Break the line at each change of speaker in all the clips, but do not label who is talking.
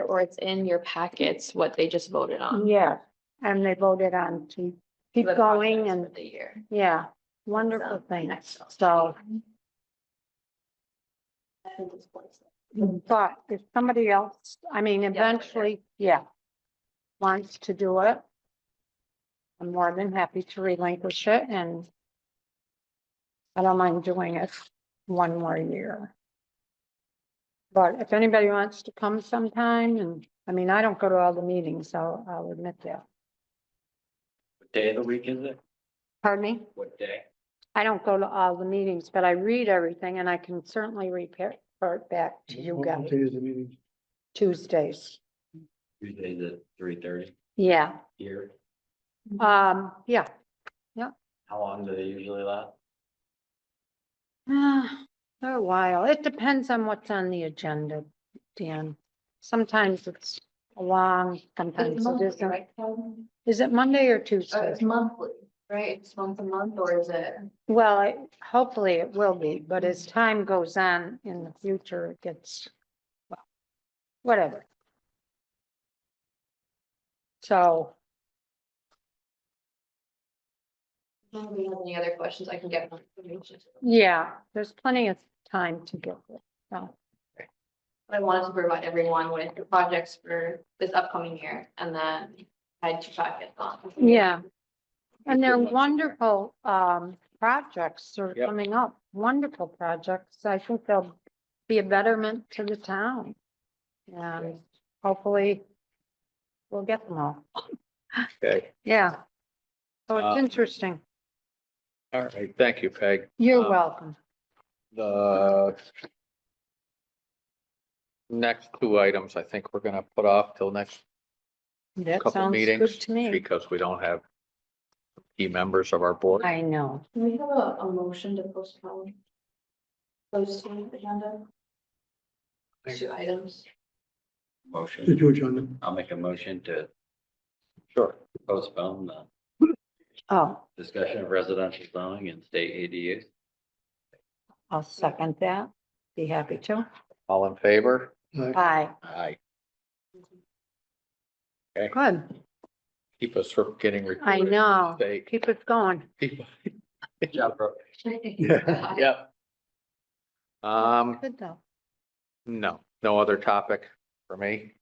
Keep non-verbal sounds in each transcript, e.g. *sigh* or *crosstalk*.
or it's in your packets, what they just voted on.
Yeah, and they voted on to keep
The
going
projects
and,
for The year.
yeah, wonderful
So,
thing.
next slide.
So, but if somebody else, I mean, eventually, yeah, wants to do it, I'm more than happy to relinquish it and I don't mind doing it one more year. But if anybody wants to come sometime and, I mean, I don't go to all the meetings, so I'll admit that.
What day of the week is it?
Pardon me?
What day?
I don't go to all the meetings, but I read everything and I can certainly repair, report back to you guys Tuesdays.
Tuesday the three thirty
Yeah,
here.
um, yeah.
How long do they usually last?
Ah, For a while. It depends on what's on the agenda, Dan. Sometimes it's long, sometimes it isn't.
It's
Is it Monday or Tuesday?
Uh, monthly, right? It's once a month or is it?
Well, I- hopefully it will be, but as time goes on in the future, it gets, well, whatever. So,
I don't really have Any other questions I can get? more information.
yeah, there's plenty of time to get it. So,
But I wanted to provide everyone with the projects for this upcoming year and then I had two packets on.
yeah. And they're wonderful, um, projects that are
Yep.
coming up, wonderful projects. I think they'll be a betterment to the town. And hopefully we'll get them all.
Okay,
Yeah. So
Uh,
it's interesting.
all right, thank you, Peg.
You're
uh,
welcome.
The next two items, I think we're gonna put off till next
That
couple
sounds good
meetings
to me.
because we don't have key members of our board.
I know.
Can we have a, a motion to postpone? Those two agenda? Two items. *laughs*
To
Motion.
do it, John.
I'll make a motion to
Sure.
postpone the
Oh,
discussion of residential zoning and state ADUs.
I'll second that. Be happy to.
All in favor?
Aye.
Bye.
Aye.
Good.
Keep us from getting. recorded.
I know.
Mistake. *laughs*
Keep it going.
People-
Good job, bro.
Yeah.
Yep. Um,
Good though.
no, no other topic for me.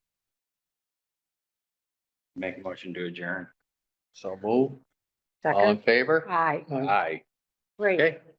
Make a motion to adjourn.
So move. All in
Second.
favor?
Aye.
Aye.
Aye.
Great.
Okay.